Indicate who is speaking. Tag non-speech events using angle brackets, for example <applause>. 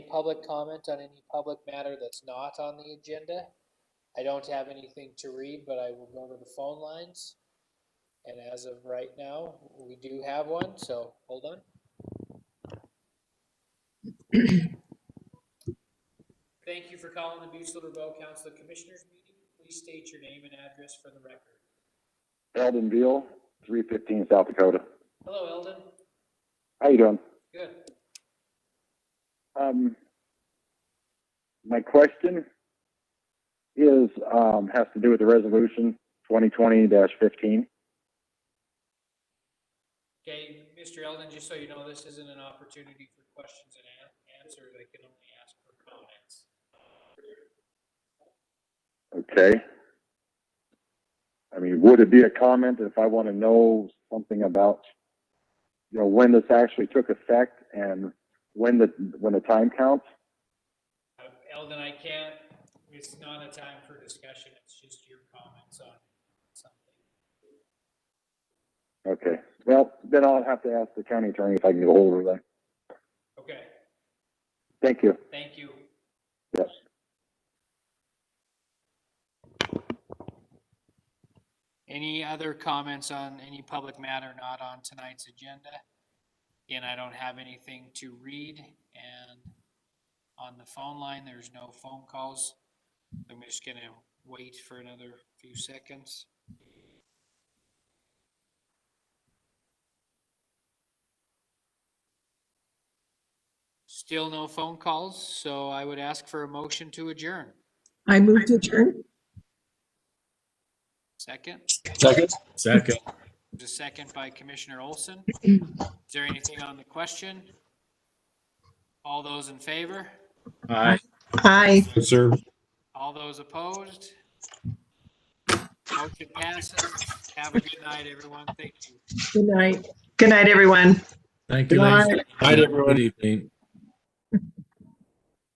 Speaker 1: public comment on any public matter that's not on the agenda. I don't have anything to read, but I will go to the phone lines. And as of right now, we do have one, so hold on. <clears throat> Thank you for calling the Bucyrus Riverboat Council of Commissioners meeting. Please state your name and address for the record.
Speaker 2: Eldon Veal, three fifteen South Dakota.
Speaker 1: Hello, Eldon.
Speaker 2: How you doing?
Speaker 1: Good.
Speaker 2: Um, my question is, um, has to do with the resolution twenty twenty fifteen.
Speaker 1: Okay, Mr. Eldon, just so you know, this isn't an opportunity for questions and an- answers. I can only ask for comments.
Speaker 2: Okay. I mean, would it be a comment if I want to know something about, you know, when this actually took effect and when the, when the time counts?
Speaker 1: Uh, Eldon, I can't, it's not a time for discussion. It's just your comments on something.
Speaker 2: Okay. Well, then I'll have to ask the county attorney if I can get a hold of them.
Speaker 1: Okay,
Speaker 2: Thank you.
Speaker 1: thank you.
Speaker 2: Yes.
Speaker 1: Any other comments on any public matter not on tonight's agenda? Again, I don't have anything to read and on the phone line, there's no phone calls. I'm just gonna wait for another few seconds. Still no phone calls, so I would ask for a motion to adjourn.
Speaker 3: I move to adjourn.
Speaker 1: Second?
Speaker 4: Second.
Speaker 1: There's a second by Commissioner Olson. Is there anything on the question? All those in favor?
Speaker 4: Aye.
Speaker 3: Aye.
Speaker 4: Sir.
Speaker 1: All those opposed? Motion passes. Have a good night, everyone. Thank you.
Speaker 3: Good night. Good night, everyone.
Speaker 4: Thank
Speaker 3: Good
Speaker 4: you.
Speaker 3: night.
Speaker 4: Night, everyone. Good evening.